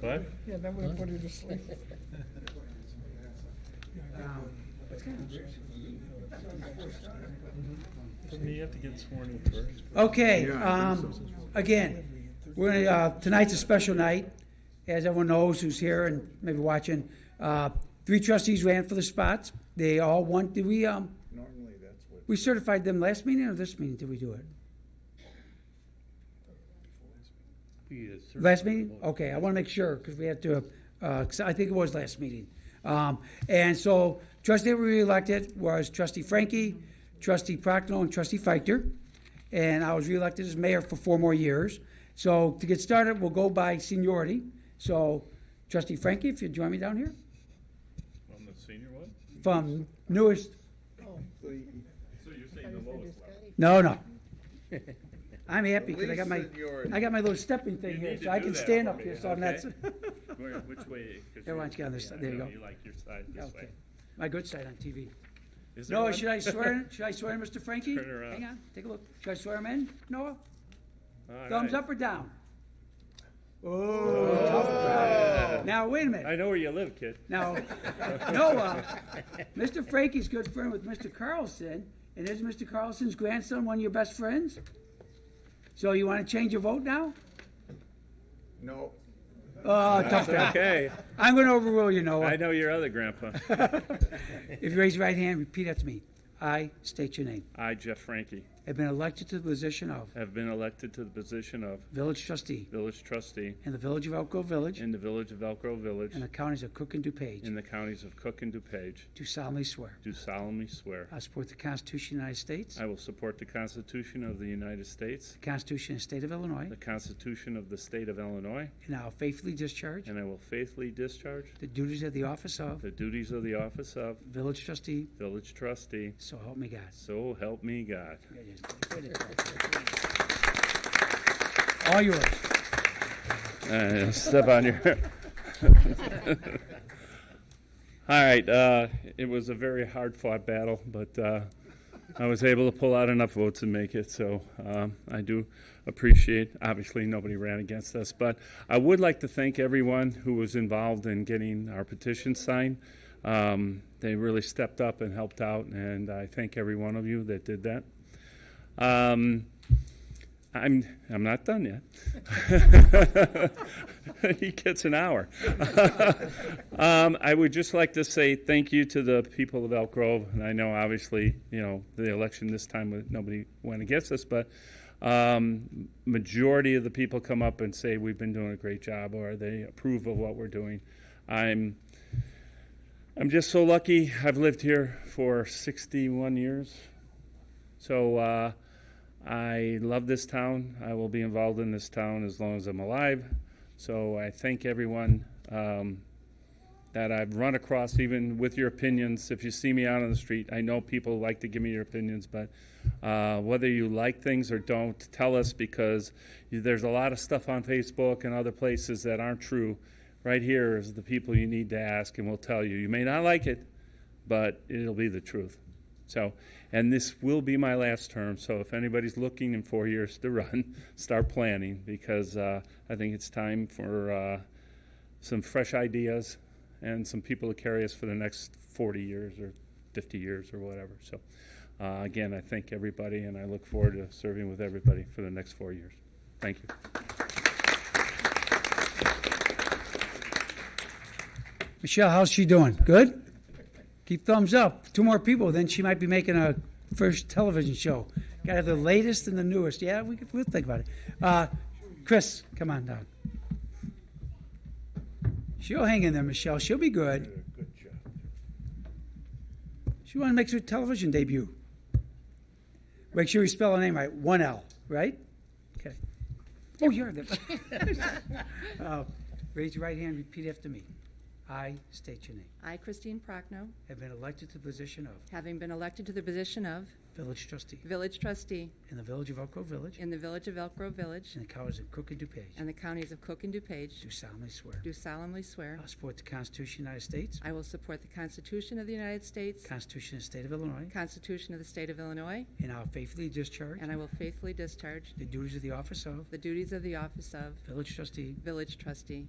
What? Yeah, that would have put her to sleep. Doesn't he have to get sworn in first? Okay, um, again, we're, gonna, uh, tonight's a special night, as everyone knows who's here and maybe watching. Uh, three trustees ran for the spots. They all won. Did we, um, Normally, that's what. we certified them last meeting or this meeting? Did we do it? uh, Last meeting? Okay, I want to make sure, because we had to, uh, 'cause I think it was last meeting. Um, And so trustee we elected was trustee Frankie, trustee Prochnow, and trustee Feichter. And I was reelected as mayor for four more years. So to get started, we'll go by seniority. So trustee Frankie, if you'd join me down here, I'm the senior one? from newest, So you're saying the lowest level? no, no. I'm happy, At because I got least my, seniority. I got my little stepping thing You here, need to so I do can that stand for up me, here, so I'm not, Where, which way? 'Cause Yeah, why don't you get on this yeah, side? There I you know, go. You like your side this okay. way. My good side on TV. Is there No, one? should I swear, in- should I swear in Mr. Frankie? Turn around. Hang on, take a look. Should I swear him in, Noah? All Thumbs right. up or down? Oh, tough crowd. Now, wait a I minute. know where you live, kid. Now, Noah, Mr. Frankie's good friend with Mr. Carlson, and is Mr. Carlson's grandson one of your best friends? So you want to change your vote now? No, Oh, tough crowd. Okay, I'm going to overrule you, I Noah. know your other grandpa. If you raise your right hand, repeat after me. I state your name. I, Jeff Frankie, Have been elected to the position of have been elected to the position of village trustee village trustee in the village of Elk Grove Village in the village of Elk Grove Village and the counties of Cook and DuPage in the counties of Cook and DuPage. do solemnly swear. Do solemnly swear. I support the Constitution of the United States, I will support the Constitution of the United States, the Constitution of the State of Illinois, the Constitution of the State of Illinois, and I will faithfully discharge and I will faithfully discharge the duties of the office of the duties of the office of village trustee, village trustee. so help me God. So help me God. All yours. Uh, step on your. All right, uh, it was a very hard fought battle, but uh, I was able to pull out enough votes and make it, so um, I do appreciate. Obviously, nobody ran against us, but I would like to thank everyone who was involved in getting our petition signed. Um, they really stepped up and helped out, and I thank every one of you that did that. Um, I'm I'm not done yet. he gets an hour. um, I would just like to say thank you to the people of Elk Grove, and I know obviously you know the election this time nobody went against us, but um, majority of the people come up and say we've been doing a great job, or they approve of what we're doing. I'm I'm just so lucky. I've lived here for 61 years, so. Uh, I love this town. I will be involved in this town as long as I'm alive. So I thank everyone um, that I've run across, even with your opinions. If you see me out on the street, I know people like to give me your opinions, but uh, whether you like things or don't, tell us because you, there's a lot of stuff on Facebook and other places that aren't true. Right here is the people you need to ask, and we'll tell you. You may not like it, but it'll be the truth. So, and this will be my last term. So, if anybody's looking in four years to run, start planning because uh, I think it's time for uh, some fresh ideas and some people to carry us for the next 40 years or 50 years or whatever. So, uh, again, I thank everybody and I look forward to serving with everybody for the next four years. Thank you. Michelle, how's she doing? Good? Keep thumbs up. Two more people, then she might be making a first television show. Got to have the latest and the newest. Yeah, we, could- we'll think about it. Uh, Chris, come on down. She'll hang in there, Michelle. She'll be good. did a good job. She want to make her television debut. Make sure you spell her name right. One L, right? Okay. Oh, you're the. uh, raise your right hand. Repeat after me. I state your name. I, Christine Prochnow, Have been elected to the position of having been elected to the position of village trustee village trustee in the village of Elk Grove Village in the village of Elk Grove Village and the counties of Cook and DuPage. and the counties of Cook and DuPage, Do solemnly swear. do solemnly swear I support the Constitution of the United States, I will support the Constitution of the United States, Constitution of the State of Illinois, Constitution of the State of Illinois, and I will faithfully discharge and I will faithfully discharge the duties of the office of the duties of the office of village trustee village trustee